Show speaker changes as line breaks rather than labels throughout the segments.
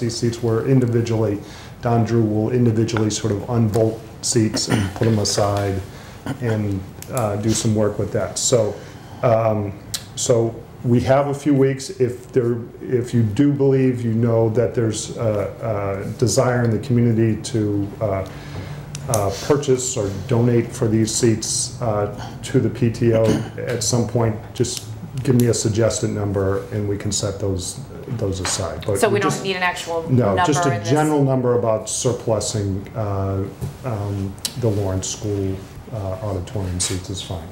these seats were individually, Don Drew will individually sort of unbolt seats and put them aside and uh, do some work with that. So, um, so we have a few weeks. If there, if you do believe, you know that there's a a desire in the community to uh, uh, purchase or donate for these seats uh, to the PTO at some point, just give me a suggested number and we can set those, those aside. But
So we don't
just-
need an actual number
No, just a
in this-
general number about surplusing uh, um, the Lawrence School uh, auditorium seats is fine.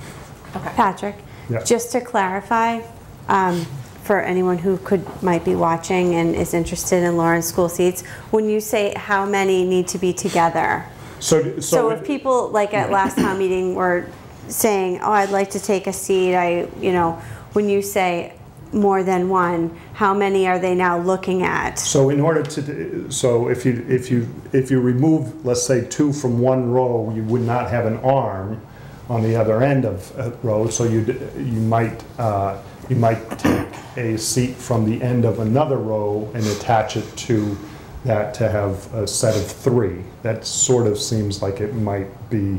Okay.
Patrick,
Yeah.
just to clarify, um, for anyone who could, might be watching and is interested in Lawrence school seats, when you say how many need to be together,
So,
so
so
if
it-
people, like at last town meeting, were saying, oh, I'd like to take a seat, I, you know, when you say more than one, how many are they now looking at?
So in order to, so if you, if you, if you remove, let's say, two from one row, you would not have an arm on the other end of a row, so you, you might, uh, you might take a seat from the end of another row and attach it to that to have a set of three. That sort of seems like it might be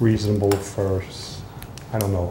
reasonable for, s- I don't know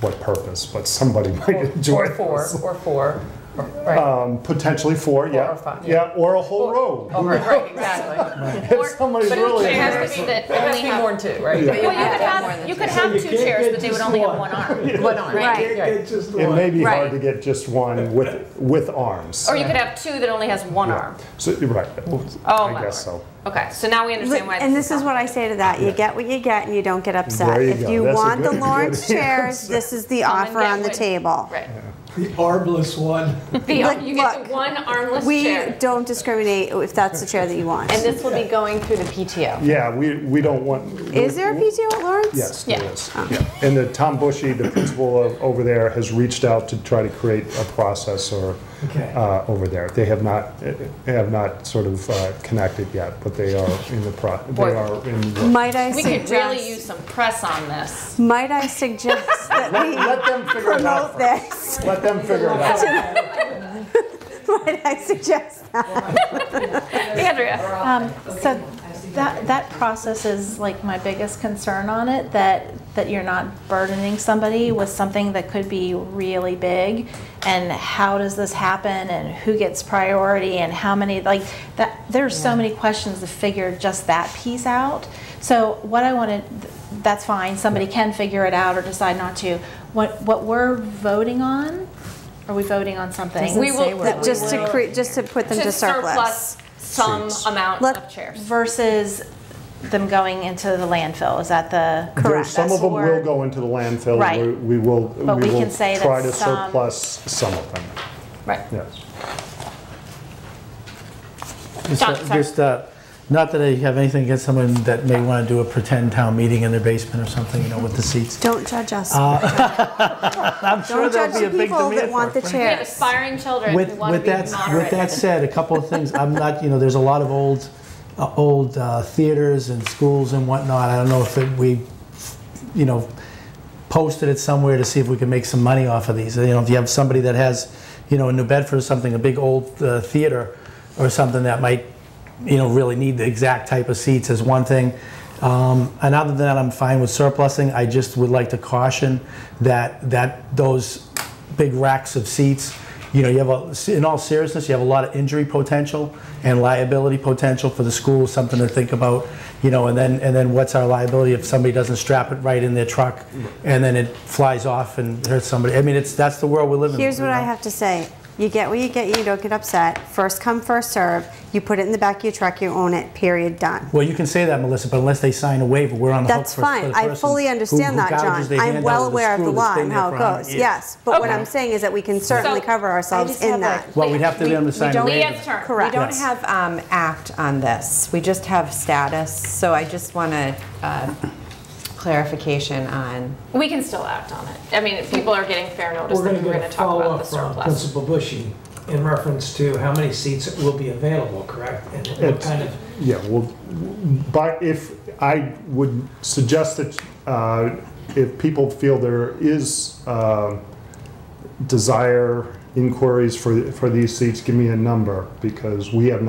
what purpose, but somebody might enjoy
Or
this.
four, or four, or- right.
Um, Potentially four, yeah.
or five,
Yeah, or a whole row.
Oh, right, right, exactly.
If somebody's
But
really.
it has to be that
It has
only
to be
have-
more than two, right?
Well, you could have, you could have two chairs, but they would only have one arm.
One arm.
Right.
right.
It may be hard
Right.
to get just one with, with arms.
Or you could have two that only has one arm.
So, you're right.
Oh,
I
my
guess so.
Okay, so now we understand why.
And this is what I say to that, you get what you get and you don't get upset.
There you
If
go.
you
That's a
want the
good-
Lawrence
good
chairs, this is the
Come and
offer
get
on the
one.
table.
Right.
The armless one.
The, you get
look,
the one armless
We
chair.
don't discriminate if that's the chair that you want.
And this will be going through the PTO.
Yeah, we, we don't want.
Is there a
Mm-hmm.
PTO at Lawrence?
Yes, there
Yeah. Oh.
is. Yeah. And the Tom Bushy, the principal of- over there, has reached out to try to create a process or,
Okay.
uh, over there. They have not, they have not sort of uh, connected yet, but they are in the pro, they
Boy.
are in.
Might I
We could really use
suggest,
some press on this.
might I suggest that we
Let them figure it out.
promote this?
Let them figure it out.
Might I suggest that?
Andrea,
Um, So that, that process is like my biggest concern on it, that, that you're not burdening somebody with something that could be really big. And how does this happen and who gets priority and how many, like, that, there's so many questions to figure just that piece out. So what I wanted, that's fine, somebody can figure it out or decide not to. What, what we're voting on, are we voting on something?
we will
That Just to create, just to put them to
to
surplus.
surplus some
Seats.
amount
Let-
of chairs.
versus them going into the landfill, is that the?
There- Some of them will
Correct.
go into the landfill.
Right.
We- We will, we
But we
will
can say
try
that
to
some-
surplus some of them,
Right.
yes.
Just,
John,
uh,
sorry.
just, uh, not that I have anything against someone that may want to do a pretend town meeting in their basement or something, you know, with the seats.
Don't judge us.
I'm Uh, sure
Don't
there'll
judge
be a
the
big
people
demand
that
for
want the
it.
We have
chairs.
aspiring children who
With,
want to
with
be
that, with that
moderated.
said, a couple of things, I'm not, you know, there's a lot of old, uh, old uh, theaters and schools and whatnot, I don't know if it- we, you know, posted it somewhere to see if we can make some money off of these. You know, if you have somebody that has, you know, in New Bedford or something, a big old uh, theater or something that might, you know, really need the exact type of seats is one thing. Um, and other than that, I'm fine with surplusing. I just would like to caution that that those big racks of seats. You know, you have a, in all seriousness, you have a lot of injury potential and liability potential for the school. Something to think about. You know, and then and then what's our liability if somebody doesn't strap it right in their truck, and then it flies off and hurts somebody. I mean, it's that's the world we live in.
Here's
you
what I
know?
have to say. You get what you get, you don't get upset. First come, first serve. You put it in the back of your truck, you own it, period, done.
Well, you can say that, Melissa, but unless they sign a waiver, we're on the hook
That's
for for
fine.
the
I
person
fully
who-
understand
who
that,
gouges
John.
their hand
I'm
out well
well aware of the
screw that's
law
been
and
there
how
for
it
a hundred
goes,
years.
yes. But what
Okay.
I'm saying is that we can certainly
So-
cover
I
ourselves
just
in
have a-
that.
Well, we'd have to be able to sign a
don't-
waiver.
Leah's turn.
Correct.
We don't
Yes.
have um, act on this. We just have status. So I just want to clarification on.
We can still act on it. I mean, if people are getting fair notice
We're
that
going
we
to
we're
get
gonna
a
talk about the
follow-up from
surplus.
Principal Bushy in reference to how many seats will be available, correct? And what
It's-
kind of,
Yeah, well, but if, I would suggest that uh, if people feel there is um, desire inquiries for, for these seats, give me a number, because we have